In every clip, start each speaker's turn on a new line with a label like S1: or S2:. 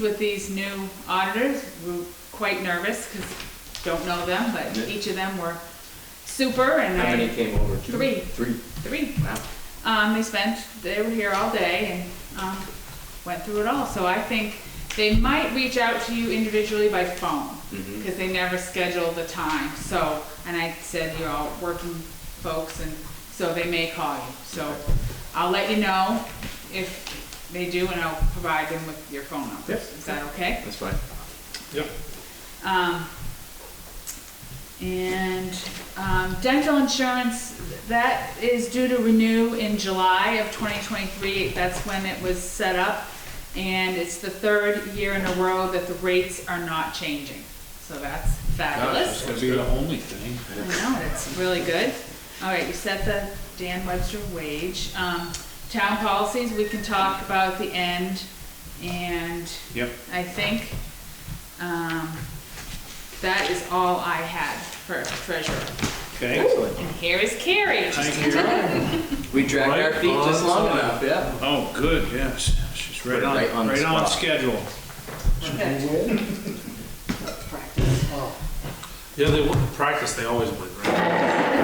S1: With these new auditors, we we're quite nervous because don't know them, but
S2: Yeah.
S1: each of them were super and
S2: How many
S1: I,
S2: came over? Two?
S1: Three.
S2: Three.
S1: three. Um, they spent, they were here all day and, um, went through it all. So I think they might reach out to you individually by phone
S2: Mhm.
S1: because they never schedule the time. So, and I said, you're all working folks and so they may call you. So I'll let you know if they do and I'll provide them with your phone number.
S2: Yep.
S1: Is that okay?
S2: That's fine.
S1: Um, and, um, dental insurance, that is due to renew in July of twenty twenty-three. That's when it was set up. And it's the third year in a row that the rates are not changing. So that's
S3: That's
S1: fabulous.
S3: gonna be the only thing.
S1: I know, that's really good. All right, you set the Dan Webster wage. Um, town policies, we can talk about at the end. And
S3: Yep.
S1: I think, um, that is all I had for treasurer.
S3: Okay.
S2: Excellent.
S1: And here is Carrie.
S3: Thank you.
S2: We dragged our
S3: Right
S2: feet just
S3: on
S2: long
S3: time.
S2: enough, yeah.
S3: Oh, good, yes. She's right
S2: Put it
S3: on,
S2: right on the
S3: right on
S2: spot.
S3: schedule.
S4: Yeah, they win. Practice, they always win, right?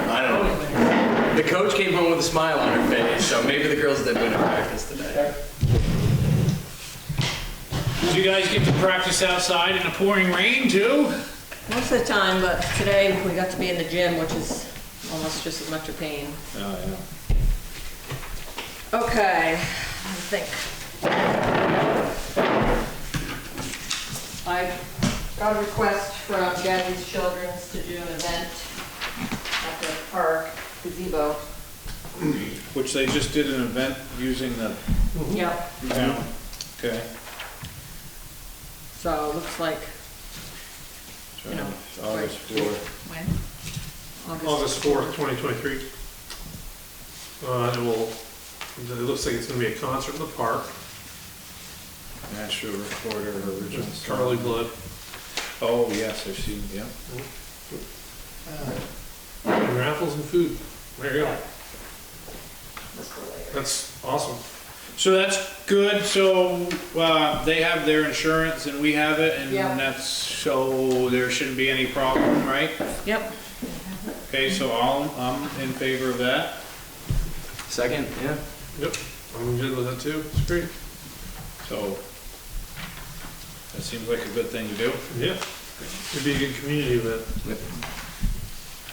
S2: I don't know. The coach came home with a smile on her face, so maybe the girls did win at practice today.
S3: Did you guys get to practice outside in the pouring rain too?
S5: Most of the time, but today we got to be in the gym, which is almost just as much a pain.
S3: Oh,
S5: Okay, I think. I got a request from Gaddy's Children's to do an event at the park gazebo.
S3: yeah. Which they just did an event using the,
S5: Yep.
S3: yeah, okay.
S5: So it looks like
S3: So,
S5: You know,
S3: it's August
S5: like-
S3: fourth.
S1: When?
S5: August.
S4: August fourth, twenty twenty-three. Uh, it will, it looks like it's gonna be a concert in the park,
S3: National Recorder Original
S4: with
S3: Song.
S4: Charlie Blood.
S3: Oh, yes, I've seen, yeah.
S4: And raffles and food. There you go. That's awesome.
S3: So that's good, so, uh, they have their insurance and we have it and
S5: Yeah.
S3: that's, so there shouldn't be any problem, right?
S5: Yep.
S3: Okay, so I'll, I'm in favor of that.
S2: Second, yeah.
S4: Yep, I'm good with that too. It's great.
S3: So, that seems like a good thing to do.
S4: Yeah. It'd be a good community event.
S2: Yep.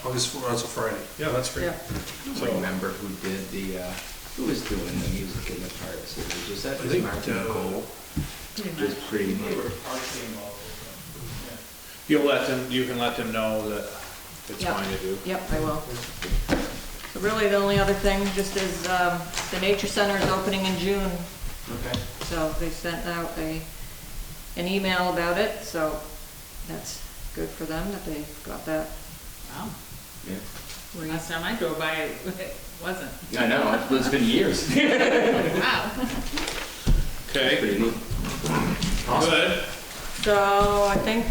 S4: August fourth, that's a Friday. Yeah, that's great.
S2: I
S5: Yeah.
S2: don't remember who did the, uh, who was doing the music in the park series. Was that
S4: I
S2: just
S4: think,
S2: Martin
S4: uh,
S2: Cole? Just pretty much.
S3: You'll let them, you can let them know that it's
S5: Yeah.
S3: fine to do.
S5: Yep, I will. So really, the only other thing just is um, the Nature Center is opening in June,
S2: Okay.
S5: so they sent out a, an email about it, so that's good for them that they got that.
S1: Wow,
S2: Yeah.
S1: oh. last time I drove by, it wasn't.
S2: I know, it's been years.
S1: Wow.
S3: Okay,
S2: Pretty neat.
S3: good.
S5: So I think,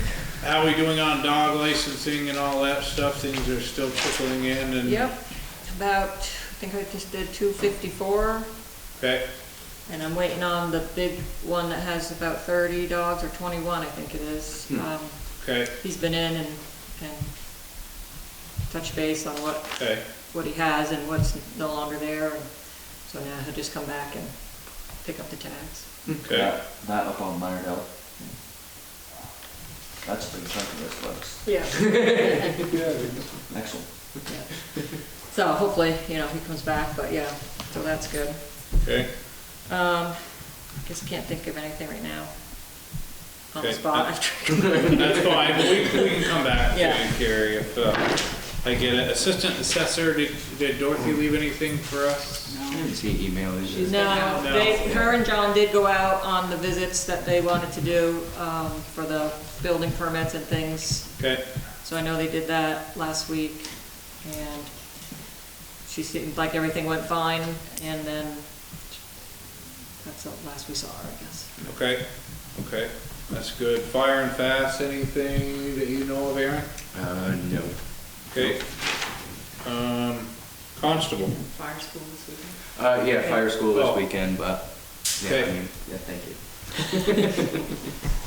S3: How are we doing on dog licensing and all that stuff? Things are still trickling in and.
S5: yep, about, I think I just did two fifty-four,
S3: Okay,
S5: and I'm waiting on the big one that has about thirty dogs, or twenty-one, I think it is. Um,
S3: okay,
S5: He's been in and, and touched base on what
S3: okay,
S5: what he has and what's no longer there, and so now he'll just come back and pick up the tags.
S3: okay.
S6: That up on Minor Hill. That's a big chunk of this list.
S5: Yeah.
S6: Excellent.
S5: So hopefully, you know, he comes back, but yeah, so that's good.
S3: Okay,
S5: Um, I guess I can't think of anything right now on the
S3: Okay.
S5: spot.
S3: that's fine, we, we can come back to
S5: Yeah.
S3: it, Carrie, if, uh, I get it. Assistant assessor, did, did Dorothy leave anything for us?
S2: I
S1: No.
S2: didn't see email, is it?
S5: No, they, her and John did go out on the visits that they wanted to do, um, for the building permits and things.
S3: Okay,
S5: So I know they did that last week, and she seemed like everything went fine, and then that's the last we saw her, I guess.
S3: okay, okay, that's good. Fire and fast, anything that you know of, Aaron?
S2: Uh, no.
S3: Okay. Um, constable,
S5: Fire school this weekend?
S2: Uh, yeah, fire school this
S3: Oh.
S2: weekend, but, yeah,
S3: Okay.
S2: I mean, yeah, thank you.